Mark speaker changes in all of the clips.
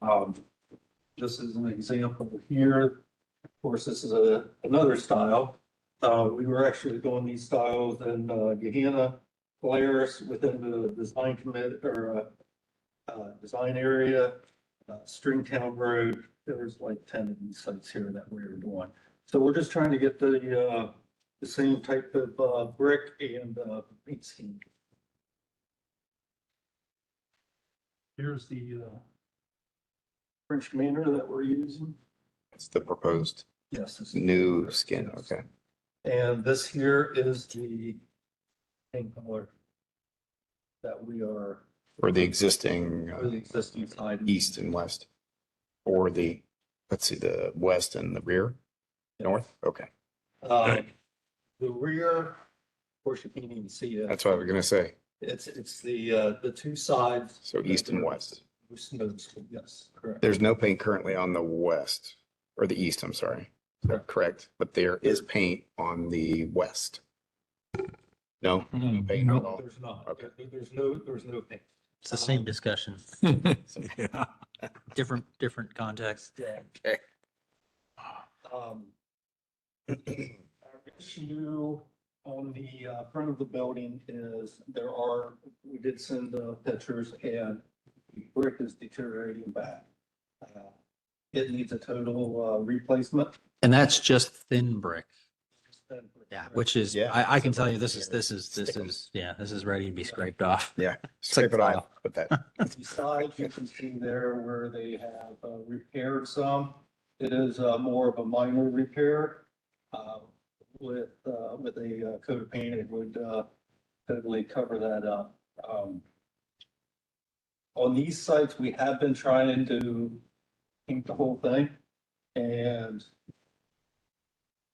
Speaker 1: Um, this is an example here. Of course, this is a, another style. Uh, we were actually doing these styles in, uh, Gehenna, Polaris within the design commit, or, uh, uh, design area, uh, Stringtown Road. There was like ten of these sites here that we were doing. So we're just trying to get the, uh, the same type of, uh, brick and, uh, paint scheme. Here's the, uh, French commander that we're using.
Speaker 2: It's the proposed
Speaker 1: Yes. this is-
Speaker 2: new skin, okay.
Speaker 1: And this here is the paint color that we are,
Speaker 2: Or the existing
Speaker 1: for the
Speaker 2: uh,
Speaker 1: existing side.
Speaker 2: east and west? Or the, let's see, the west and the rear, north? Okay,
Speaker 1: Um, The rear, of course, you can't even see it.
Speaker 2: that's what I was gonna say.
Speaker 1: It's, it's the, uh, the two sides.
Speaker 2: So east and west.
Speaker 1: Who's noticeable, Yes, correct.
Speaker 2: There's no paint currently on the west, or the east, I'm sorry.
Speaker 1: Correct.
Speaker 2: Correct, but there is paint on the west. No? Paint at
Speaker 1: No,
Speaker 2: all.
Speaker 1: there's not.
Speaker 2: Okay.
Speaker 1: There- There's no, there's no paint.
Speaker 3: It's the same discussion,
Speaker 4: Yeah.
Speaker 3: different, different context.
Speaker 1: Okay. Um. Our issue on the uh, front of the building is there are, we did send the pictures and the brick is deteriorating back. Uh, It needs a total uh, replacement.
Speaker 3: And that's just thin brick. Yeah, which is,
Speaker 2: Yeah.
Speaker 3: I, I can tell you, this is, this is, this is, yeah, this is ready to be scraped off.
Speaker 2: Scrape it off, but that,
Speaker 1: Besides, you can see there where they have uh, repaired some. It is uh, more of a minor repair uh, with, uh, with a uh, coat of paint, it would uh, totally cover that up. Um, On these sites, we have been trying to paint the whole thing and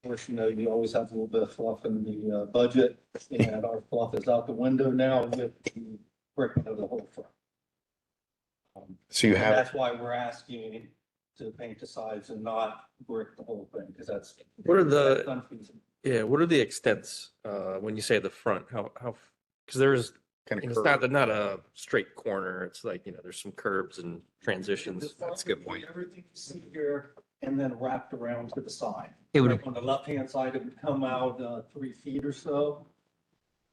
Speaker 1: of course, you know, you always have a little bit of fluff in the uh, budget and our fluff is out the window now with the breaking of the whole front. Um,
Speaker 2: so you
Speaker 1: and
Speaker 2: have,
Speaker 1: That's why we're asking to paint the sides and not brick the whole thing, because that's.
Speaker 4: What are the-
Speaker 1: that's unfeasible.
Speaker 4: Yeah, what are the extents, uh, when you say the front, how, how, because there's,
Speaker 2: kind
Speaker 4: it's
Speaker 2: of
Speaker 4: not,
Speaker 2: curved.
Speaker 4: they're not a straight corner, it's like, you know, there's some curves and
Speaker 1: The
Speaker 4: transitions.
Speaker 1: front
Speaker 2: that's a good
Speaker 1: would be
Speaker 2: point.
Speaker 1: Everything you see here and then wrapped around to the side.
Speaker 3: It would,
Speaker 1: Like on the left-hand side, it would come out uh, three feet or so.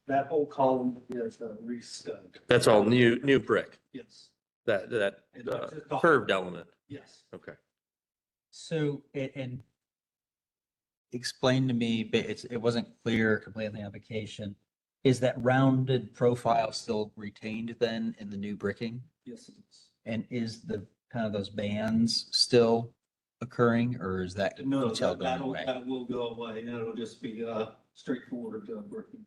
Speaker 1: That whole column is uh, re-stubbed.
Speaker 4: That's all new, new brick,
Speaker 1: Yes.
Speaker 4: that, that
Speaker 1: And
Speaker 4: uh,
Speaker 1: that's just the-
Speaker 4: curved element,
Speaker 1: Yes.
Speaker 4: okay.
Speaker 3: so, a- and explain to me, but it's, it wasn't clear completely in the application. Is that rounded profile still retained then in the new bricking?
Speaker 1: Yes, it is.
Speaker 3: And is the, kind of those bands still occurring or is that
Speaker 1: No,
Speaker 3: detail
Speaker 1: that,
Speaker 3: going
Speaker 1: that'll,
Speaker 3: away?
Speaker 1: that will go away, and it'll just be, uh, straightforward, uh, working.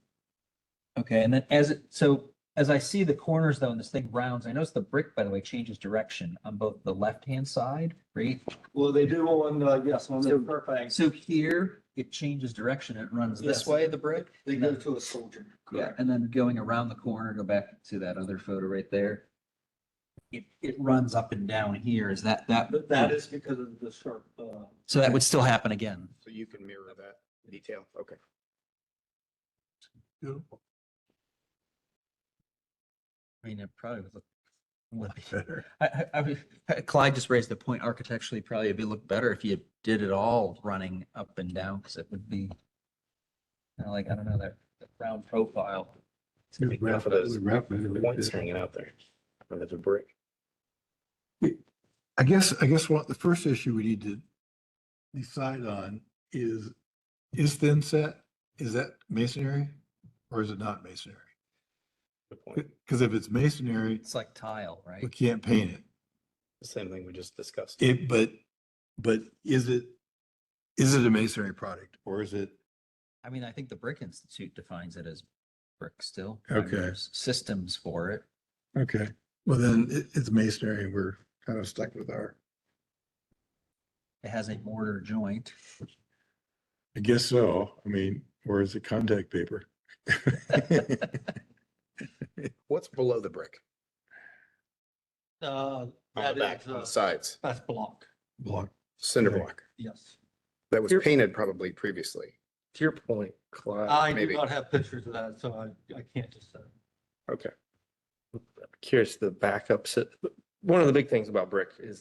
Speaker 3: Okay, and then as it, so as I see the corners though, and this thing rounds, I notice the brick, by the way, changes direction on both the left-hand side, right?
Speaker 1: Well, they do on, uh, yes, on the perfect,
Speaker 3: So here, it changes direction, it runs
Speaker 1: Yes.
Speaker 3: this way, the brick?
Speaker 1: they go to a soldier.
Speaker 3: Yeah, and then going around the corner, go back to that other photo right there. It, it runs up and down here, is that, that?
Speaker 1: But that is because of the sharp, uh,
Speaker 3: So that would still happen again?
Speaker 2: So you can mirror that detail, okay.
Speaker 3: I mean, it probably would look. Would be better. I, I, I mean, Clyde just raised the point architecturally, probably it'd be look better if you did it all running up and down, because it would be. Kind of like, I don't know, that that round profile. It's gonna be
Speaker 2: Half of those points
Speaker 5: I
Speaker 2: hanging out there. And it's a brick.
Speaker 5: guess, I guess what the first issue we need to decide on is, is thin set, is that masonry? Or is it not masonry?
Speaker 2: Good point.
Speaker 5: Because if it's masonry,
Speaker 3: It's like tile, right?
Speaker 5: we can't paint it.
Speaker 2: The Same thing we just discussed.
Speaker 5: It, but, but is it, is it a masonry product or is it?
Speaker 3: I mean, I think the Brick Institute defines it as brick still. I mean,
Speaker 5: Okay.
Speaker 3: there's Systems for it.
Speaker 5: Okay. Well, then it, it's masonry. and We're kind of stuck with our,
Speaker 3: It has a mortar joint.
Speaker 5: I guess so. I mean, or is it contact paper?
Speaker 2: What's below the brick?
Speaker 1: uh,
Speaker 2: On
Speaker 1: that
Speaker 2: the back,
Speaker 1: is,
Speaker 2: on
Speaker 1: uh,
Speaker 2: the sides,
Speaker 1: that's block,
Speaker 5: Block.
Speaker 2: cinder
Speaker 5: Okay.
Speaker 2: block.
Speaker 1: yes.
Speaker 2: That was
Speaker 4: Here-
Speaker 2: painted probably previously.
Speaker 4: To your point, Clyde,
Speaker 1: I do
Speaker 2: Uh, maybe.
Speaker 1: not have pictures of that, so I, I can't just, uh,
Speaker 2: Okay.
Speaker 4: uh, I'm curious, the backups, one of the big things about brick is